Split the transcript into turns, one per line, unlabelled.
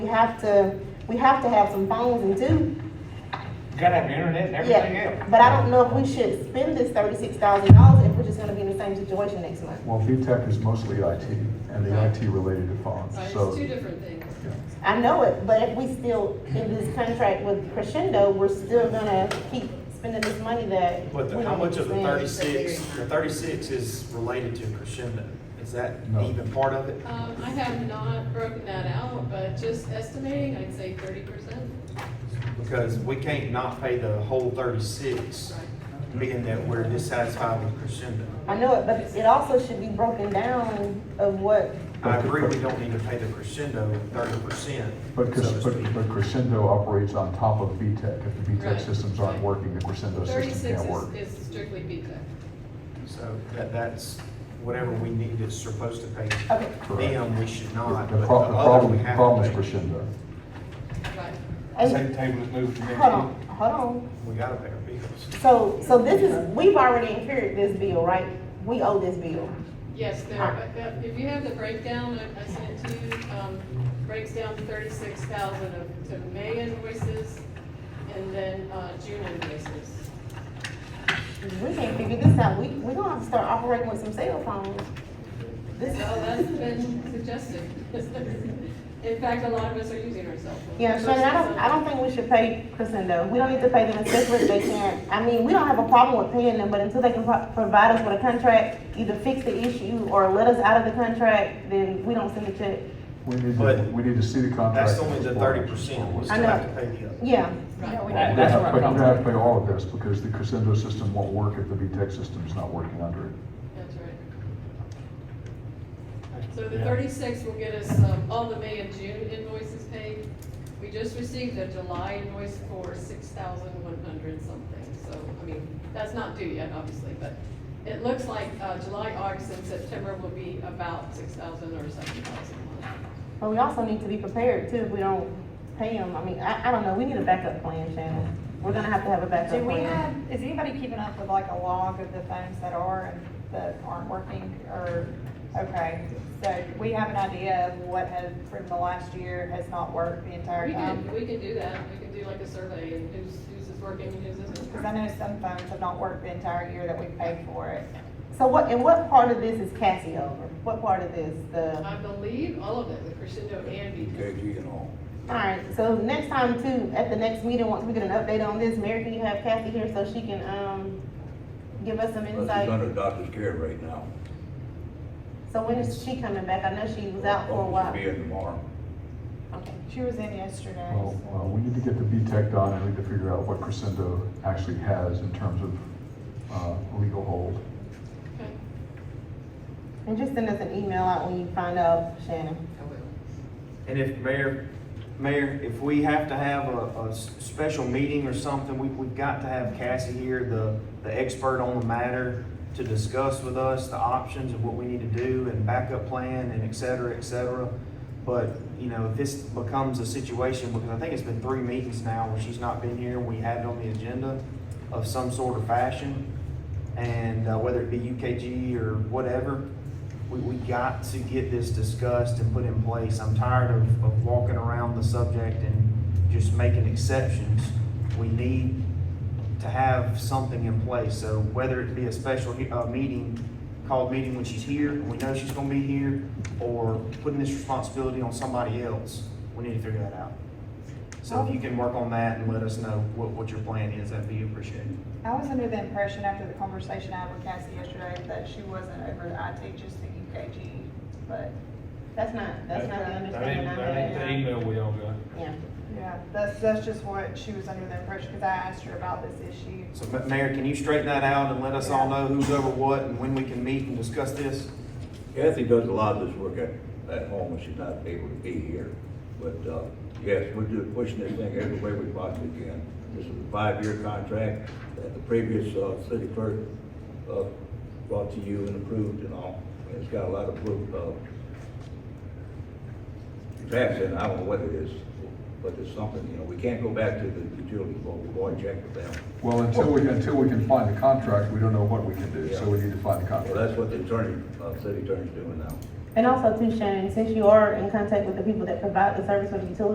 have to, we have to have some phones and do.
Gotta have the internet and everything
Yeah,
else.
but I don't know if we should spend this thirty-six thousand dollars if we're just gonna be in the same situation next month.
Well, VTech is mostly IT, and the IT related to phones,
Right,
so.
it's two different things.
yeah.
I know it, but if we still, in this contract with Crescendo, we're still gonna keep spending this money that.
But the-
we
how
don't
much of the
spend.
thirty-six, the thirty-six is related to Crescendo? Is that
No.
even part of it?
Um, I have not broken that out, but just estimating, I'd say thirty percent.
Because we can't not pay the whole thirty-six, being that we're dissatisfied with Crescendo.
I know it, but it also should be broken down of what,
I agree, we don't need to pay the Crescendo thirty percent, so
But,
to
Cres-
speak.
but but Crescendo operates on top of VTech. If the VTech
Right.
systems aren't
Right.
working, the Crescendo system
Thirty-six
can't work.
is, is strictly pizza.
So that, that's whatever we need is supposed to pay
okay,
Correct.
them, we should
The
not,
the
but the
pro- the
other we
problem,
have
problem is
to pay.
Crescendo.
Right.
and,
Same table is moved from next
hold
year.
on, hold on.
We gotta pay our bills.
So, so this is, we've already incurred this bill, right? We owe this bill.
Yes, there, but that- if you have the breakdown, I I sent it to you, um, breaks down thirty-six thousand of, to May invoices and then, uh, June invoices.
We can't figure this out, we, we gonna have to start operating with some cell phones.
So
This,
that's been suggested. In fact, a lot of us are using our cell phones.
Yeah, Shannon, I don't, I don't think we should pay Crescendo. We don't need to pay them separate, they can't, I mean, we don't have a problem with paying them, but until they can pro- provide us with a contract, either fix the issue or let us out of the contract, then we don't send a check.
We need to,
But
we need to see the contract.
That's only the
before-
thirty percent, we
before-
I
still
know.
have to pay the other.
Yeah,
Right.
We're gonna
That's where
have-
I'm
But
coming
you're gonna have to
from.
pay all of this, because the Crescendo system won't work if the VTech system's not working under it.
That's right. So the thirty-six will get us, um, all the May and June invoices paid. We just received a July invoice for six thousand one hundred something, so, I mean, that's not due yet, obviously, but it looks like, uh, July, August, and September will be about six thousand or seven thousand a month.
but we also need to be prepared too, if we don't pay them, I mean, I, I don't know, we need a backup plan, Shannon. We're gonna have to have a backup
Do
plan.
we have, is anybody keeping up with like a log of the phones that are and that aren't working or, okay? So do we have an idea of what has, from the last year, has not worked the entire
We
time?
can, we can do that, we can do like a survey and who's, who's is working, and who's isn't.
Because I know some phones have not worked the entire year that we paid for it.
So what, and what part of this is Cassie over? What part of this, the?
I believe all of it, the crescendo and VTech.
Alright, so next time too, at the next meeting, once we get an update on this, Mary, can you have Kathy here so she can, um, give us some
But she's
insight?
under doctor's care right now.
So when is she coming back? I know she was out for a while.
She'll be in tomorrow.
Okay.
She was in yesterday.
Well, uh, we need to get the VTech done, and we need to figure out what Crescendo actually has in terms of uh, legal hold.
Okay.
And just send us an email out when you find out, Shannon.
And if mayor, mayor, if we have to have a, a s- special meeting or something, we, we've got to have Cassie here, the, the expert on the matter, to discuss with us the options of what we need to do and backup plan and et cetera, et cetera. But, you know, if this becomes a situation, because I think it's been three meetings now where she's not been here, we had it on the agenda of some sort of fashion. And uh, whether it be UKG or whatever, we, we got to get this discussed and put in place. I'm tired of, of walking around the subject and just making exceptions. We need to have something in place, so whether it be a special, he- uh, meeting, called meeting when she's here, and we know she's gonna be here, or putting this responsibility on somebody else, we need to figure that out. So if you can work on that and let us know what, what your plan is, that'd be appreciated.
I was under the impression after the conversation I had with Cassie yesterday that she wasn't over the IT, just the UKG, but,
That's not, that's not the
That ain't,
understanding I
that ain't the
have.
email we all got.
Yeah.
yeah, that's, that's just what she was under the impression, because I asked her about this issue.
So, Ma- Mayor, can you straighten that out and let us all know who's over what and when we can meet and discuss this?
Kathy does a lot of this work at, at home when she's not able to be here. But, uh, yes, we're just pushing this thing every way we possibly can. This is a five-year contract that the previous, uh, city clerk, uh, brought to you and approved and all. And It's got a lot of, proof, uh, facts in it. I don't know what it is, but it's something, you know, we can't go back to the utility board, we'll go and check with them.
Well, until we, until we can find the contract, we don't know what we can do, so we need to find the
Well,
contract.
that's what the attorney, uh, city attorney's doing now.
And also too, Shannon, since you are in contact with the people that provide the service with utilities,